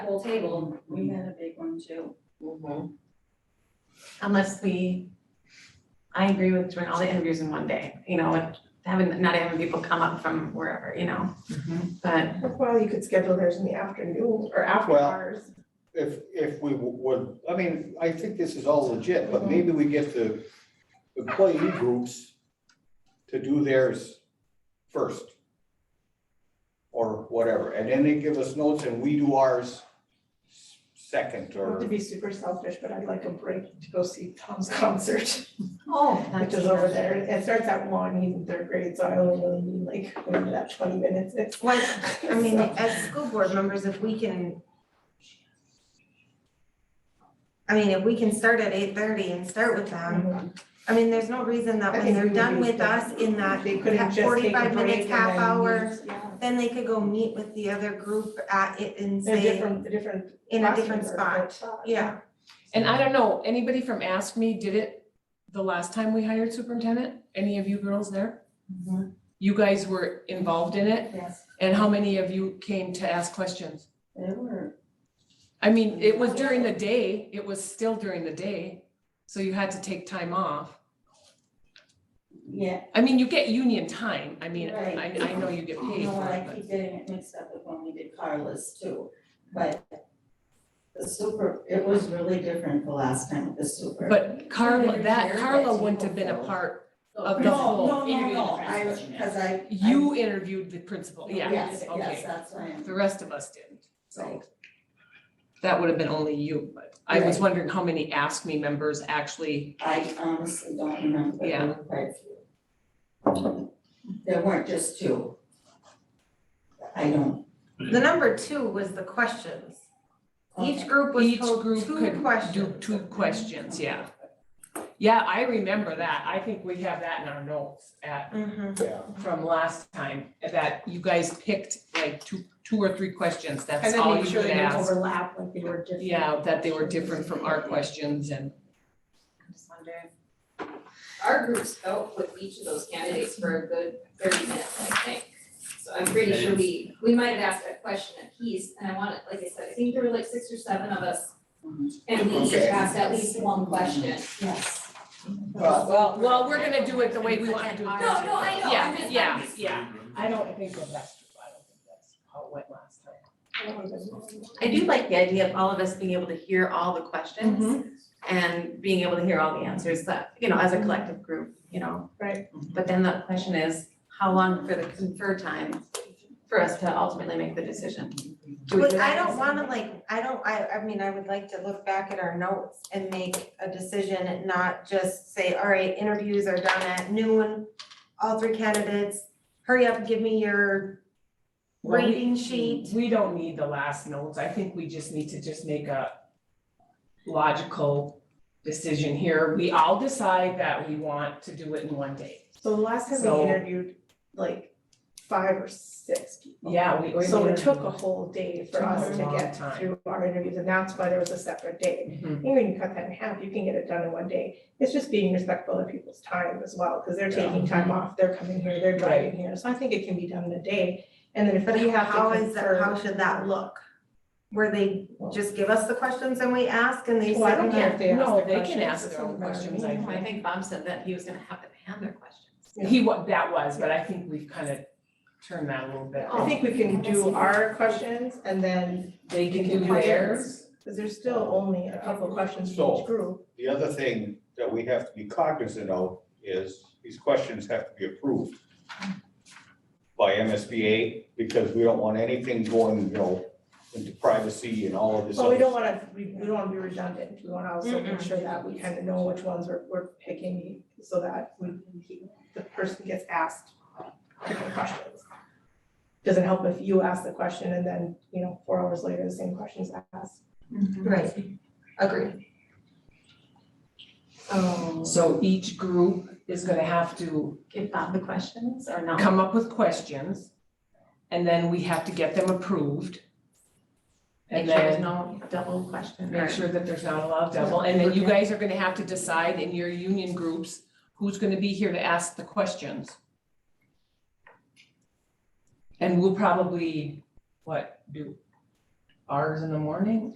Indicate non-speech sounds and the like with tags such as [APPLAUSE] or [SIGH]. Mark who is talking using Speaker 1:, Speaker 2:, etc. Speaker 1: whole table,
Speaker 2: We had a big one too.
Speaker 3: unless we, I agree with doing all the interviews in one day, you know, and having, not having people come up from wherever, you know? But
Speaker 4: Well, you could schedule theirs in the afternoon or after
Speaker 5: Well-
Speaker 4: hours.
Speaker 5: If, if we would, I mean, I think this is all legit,
Speaker 4: Mhm.
Speaker 5: but maybe we get the employee groups to do theirs first. Or whatever, and then they give us notes and we do ours s- second
Speaker 4: Not
Speaker 5: or,
Speaker 4: to be super selfish, but I'd like a break to go see Tom's [LAUGHS] concert,
Speaker 3: Oh,
Speaker 4: which is over there. It starts at one, he's in third grade, so I only really need like, whatever that twenty minutes is. [LAUGHS]
Speaker 3: Well, I mean,
Speaker 4: So,
Speaker 3: as school board members, if we can. I mean, if we can start at eight thirty and start with them,
Speaker 4: mhm.
Speaker 3: I mean, there's no reason that
Speaker 4: I
Speaker 3: when
Speaker 4: think
Speaker 3: they're
Speaker 4: we
Speaker 3: done
Speaker 4: reduce
Speaker 3: with
Speaker 4: the-
Speaker 3: us in that
Speaker 4: They could have
Speaker 3: that
Speaker 4: just taken a
Speaker 3: 45 minutes,
Speaker 4: break and
Speaker 3: half
Speaker 4: then
Speaker 3: hour.
Speaker 4: used- yeah.
Speaker 3: then they could go meet with the other group at it and
Speaker 4: They're
Speaker 3: say,
Speaker 4: different, they're different. uh,
Speaker 3: in a different
Speaker 4: classrooms are built
Speaker 3: spot,
Speaker 4: up.
Speaker 3: yeah.
Speaker 6: And I don't know, anybody from Ask Me did it the last time we hired superintendent? Any of you girls there?
Speaker 2: Mm-hmm.
Speaker 6: You guys were involved in it?
Speaker 2: Yes.
Speaker 6: And how many of you came to ask questions?
Speaker 2: They were,
Speaker 6: I mean, it was during the day, it was still during the day, so you had to take time off.
Speaker 2: yeah,
Speaker 6: I mean, you get union time, I mean, I,
Speaker 2: Right.
Speaker 6: I know you get
Speaker 2: you
Speaker 6: paid
Speaker 2: know,
Speaker 6: for
Speaker 2: what,
Speaker 6: it,
Speaker 2: I
Speaker 6: but.
Speaker 2: keep getting it mixed up with when we did Carla's too, but the super, it was really different the last time with the super.
Speaker 6: But Carla,
Speaker 2: Never
Speaker 6: that
Speaker 2: cared
Speaker 6: Carla
Speaker 2: that
Speaker 6: wouldn't have been a
Speaker 2: people
Speaker 6: part,
Speaker 2: No,
Speaker 6: of the
Speaker 2: no,
Speaker 6: whole
Speaker 2: no, no,
Speaker 6: interview
Speaker 2: no, I,
Speaker 6: process.
Speaker 2: cause I.
Speaker 6: you interviewed the principal,
Speaker 2: I-
Speaker 6: yeah,
Speaker 2: Yes, yes,
Speaker 6: okay.
Speaker 2: that's why I'm,
Speaker 6: The rest of us didn't, so.
Speaker 2: Right.
Speaker 6: That would have been only you, but I was
Speaker 2: Right.
Speaker 6: wondering how many Ask Me members actually,
Speaker 2: I honestly don't remember, but there
Speaker 6: Yeah.
Speaker 2: were quite a few. There weren't just two. I don't,
Speaker 3: The number two was the questions. Each group was
Speaker 6: each
Speaker 3: told
Speaker 6: group
Speaker 3: two
Speaker 6: could do
Speaker 3: questions.
Speaker 6: two questions, yeah. Yeah, I remember that, I think we have that in our notes at
Speaker 3: Mhm.
Speaker 5: yeah.
Speaker 6: from last time, that you guys picked like two, two or three questions,
Speaker 4: And
Speaker 6: that's
Speaker 4: then
Speaker 6: all
Speaker 4: make
Speaker 6: you
Speaker 4: sure
Speaker 6: could
Speaker 4: they didn't
Speaker 6: ask.
Speaker 4: overlap, like they were different.
Speaker 6: Yeah, that they were different from our questions and,
Speaker 3: I just wonder.
Speaker 7: our groups dealt with each of those candidates for a good thirty minutes, I think. So I'm pretty sure we, we might have asked a question at piece, and I wanted, like I said, I think there were like six or seven of us. And we each
Speaker 5: Okay.
Speaker 7: asked at least one question.
Speaker 2: yes.
Speaker 6: well, well, we're gonna do it the way we wanna do it.
Speaker 7: No, no, I know, I'm
Speaker 6: Yeah,
Speaker 7: just-
Speaker 6: yeah, yeah, I don't think that that's true, I don't think that's how it went last time.
Speaker 3: I do like the idea of all of us being able to hear all the questions and being able to hear all the answers that, you know, as a collective group, you know?
Speaker 4: Right.
Speaker 3: But then the question is, how long for the confer time for us to ultimately make the decision? Do we do
Speaker 8: But I
Speaker 3: that?
Speaker 8: don't wanna like, I don't, I, I mean, I would like to look back at our notes and make a decision and not just say, all right, interviews are done at noon. All three candidates, hurry up, give me your
Speaker 6: Well, we-
Speaker 8: rating sheet.
Speaker 6: We don't need the last notes, I think we just need to just make a logical decision here. We all decide that we want to do it in one day.
Speaker 4: So the last time
Speaker 6: So-
Speaker 4: we interviewed, like, five or six people.
Speaker 6: Yeah, we. we-
Speaker 4: So it took a whole day for
Speaker 6: Took a
Speaker 4: us to
Speaker 6: long
Speaker 4: get
Speaker 6: time.
Speaker 4: through our interviews, and that's why there was a separate day.
Speaker 6: Mhm.
Speaker 4: Even when you cut that in half, you can get it done in one day. It's just being respectful of people's time as well, because they're taking
Speaker 6: Mm-hmm.
Speaker 4: time off, they're coming here, they're driving here. So I think it can be done in a day. And then if
Speaker 8: But
Speaker 4: we have to
Speaker 8: how is that,
Speaker 4: confer-
Speaker 8: how should that look? Where they just give us the questions and we ask and they
Speaker 4: Well, I
Speaker 8: sit
Speaker 4: don't
Speaker 8: and
Speaker 4: know if they ask
Speaker 6: No,
Speaker 4: the
Speaker 6: they can
Speaker 4: questions,
Speaker 6: ask
Speaker 4: it's
Speaker 6: their own
Speaker 4: not really
Speaker 6: questions, I
Speaker 4: mean.
Speaker 6: think.
Speaker 3: I think Bob said that he was gonna have them hand their questions.
Speaker 4: Yeah.
Speaker 6: He wa, that was, but I think we've kind of turned that a little bit.
Speaker 4: I think we can
Speaker 8: Oh.
Speaker 4: do our questions and then,
Speaker 6: They
Speaker 4: can do theirs. because there's still only a couple questions for
Speaker 5: So-
Speaker 4: each group.
Speaker 5: The other thing that we have to be cognizant of is these questions have to be approved by MSBA because we don't want anything going, you know, into privacy and all of this.
Speaker 4: Well, we
Speaker 5: other
Speaker 4: don't wanna, we, we don't wanna be redundant, we wanna also make sure that we kinda know which ones we're, we're picking, so that we, the person gets asked different questions. Doesn't help if you ask the question and then, you know, four hours later, the same question's asked.
Speaker 8: Right, agreed.
Speaker 4: Um.
Speaker 6: So each group is gonna have to
Speaker 3: Give Bob the questions or no?
Speaker 6: come up with questions, and then we have to get them approved.
Speaker 3: Make
Speaker 6: And
Speaker 3: sure there's
Speaker 6: then
Speaker 3: no double question or-
Speaker 6: make sure that there's not a lot of double, and then you guys are gonna have to decide in your union groups who's gonna be here to ask the questions. And we'll probably, what, do ours in the morning